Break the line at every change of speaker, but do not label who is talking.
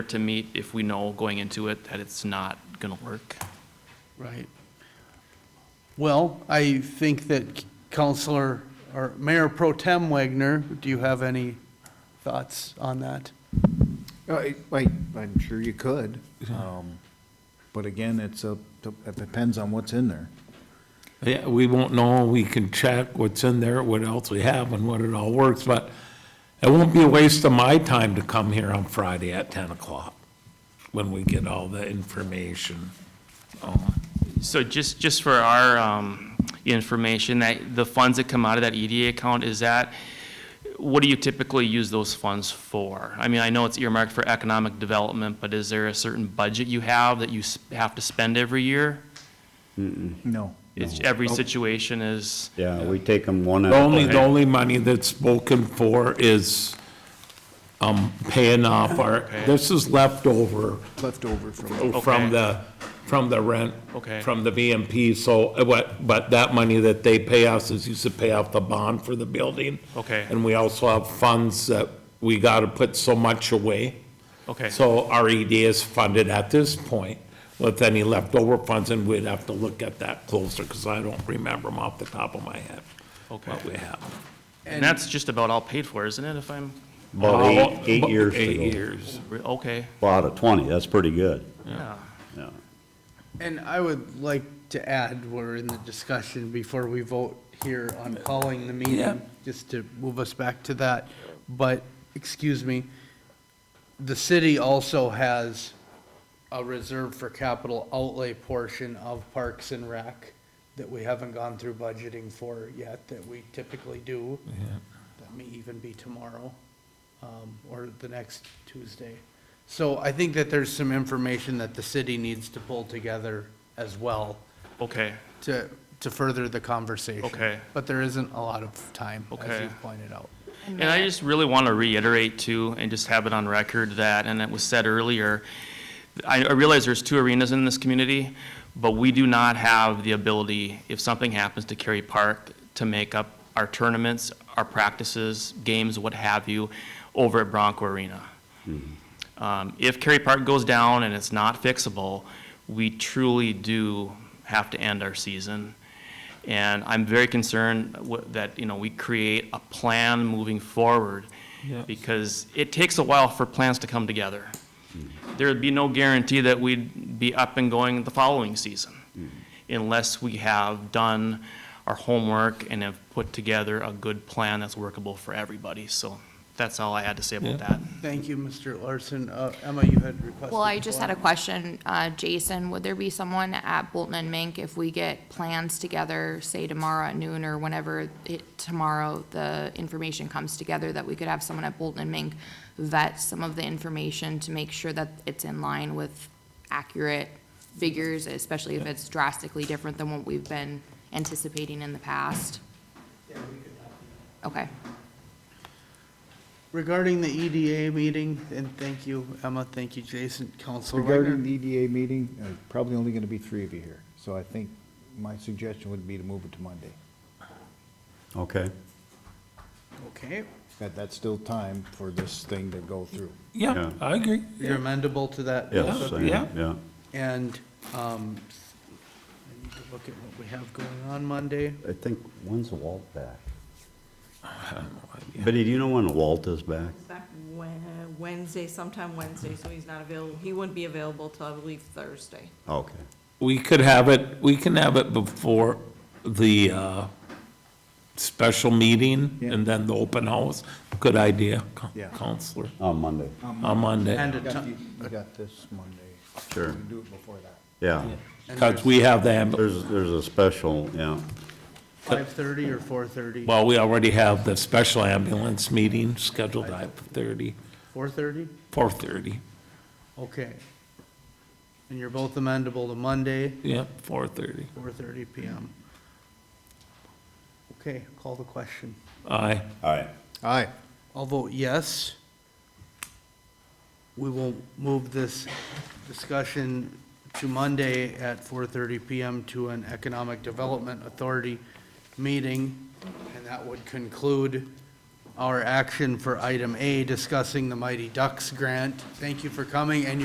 to meet if we know going into it that it's not gonna work.
Right. Well, I think that Counselor, or Mayor Pro Tem Wagner, do you have any thoughts on that?
Uh, I, I- I'm sure you could, um, but again, it's a, it depends on what's in there.
Yeah, we won't know, we can check what's in there, what else we have, and what it all works, but it won't be a waste of my time to come here on Friday at ten o'clock, when we get all the information.
So just, just for our um, information, that the funds that come out of that EDA account, is that, what do you typically use those funds for? I mean, I know it's earmarked for economic development, but is there a certain budget you have that you s- have to spend every year?
No.
It's, every situation is,
Yeah, we take them one at
The
a
only, the
time.
only money that's spoken for is, um, paying off our, this is leftover
Left over from.
Okay.
from the, from the rent.
Okay.
From the VMP, so, uh, what, but that money that they pay us is used to pay off the bond for the building.
Okay.
And we also have funds that we gotta put so much away.
okay,
So our ED is funded at this point with any leftover funds, and we'd have to look at that closer, because I don't remember them off the top of my head,
okay.
what we have.
And that's just about all paid for, isn't it, if I'm,
About eight, eight years
Eight
ago.
years.
re- okay,
Well, out of 20, that's pretty good.
yeah.
Yeah.
And I would like to add, we're in the discussion before we vote here on calling the
Yeah.
meeting, just to move us back to that, but, excuse me, the city also has a reserve for capital outlay portion of Parks and Rec that we haven't gone through budgeting for yet, that we typically do. That may even be tomorrow, um, or the next Tuesday. So I think that there's some information that the city needs to pull together as well
Okay,
to, to further the conversation.
Okay.
But there isn't a lot of time, as
Okay.
you've pointed out.
And I just really want to reiterate too, and just have it on record that, and it was said earlier, I I realize there's two arenas in this community, but we do not have the ability, if something happens to Cary Park, to make up our tournaments, our practices, games, what have you, over at Bronco Arena. Um, If Cary Park goes down and it's not fixable, we truly do have to end our season. And I'm very concerned wha- that, you know, we create a plan moving forward because it takes a while for plans to come together. There would be no guarantee that we'd be up and going the following season unless we have done our homework and have put together a good plan that's workable for everybody. So that's all I had to say about that.
Thank you, Mr. Larson. Uh, Emma, you had requested.
Well, I just had a
floor.
question, uh, Jason, would there be someone at Bolton and Mink if we get plans together, say tomorrow at noon or whenever it, tomorrow, the information comes together, that we could have someone at Bolton and Mink vet some of the information to make sure that it's in line with accurate figures, especially if it's drastically different than what we've been anticipating in the past? Okay.
Regarding the EDA meeting, and thank you, Emma, thank you, Jason, Counselor
Regarding
Wagner.
the EDA meeting, uh, probably only gonna be three of you here, so I think my suggestion would be to move it to Monday.
Okay.
Okay,
That, that's still time for this thing to go through.
Yeah,
Yeah.
I agree.
you're amendable to that?
Yes, I-
Yeah.
yeah.
And, um, I need to look at what we have going on Monday.
I think, when's Walt back? Betty, do you know when Walt is back?
He's back Wed- Wednesday, sometime Wednesday, so he's not available, he wouldn't be available till, I believe, Thursday.
Okay.
We could have it, we can have it before the, uh, special meeting and then the open house. Good idea, Coun-
Yeah.
Counselor,
On Monday,
on Monday.
And a
You
ti-
you got this Monday.
Sure.
You can Do it before that.
yeah.
Because we have the, amb-
There's, there's a special, yeah.
five-thirty or four-thirty?
well, we already have the special ambulance meeting scheduled at 30,
Four-thirty?
4:30.
Okay. And you're both amendable to Monday,
Yeah, 4:30.
four-thirty PM. Okay, call the question.
Aye.
All right.
Aye.
I'll vote yes. We will move this discussion to Monday at 4:30 PM to an Economic Development Authority meeting, and that would conclude um, our action for item A, discussing the Mighty Ducks grant. Thank you for coming and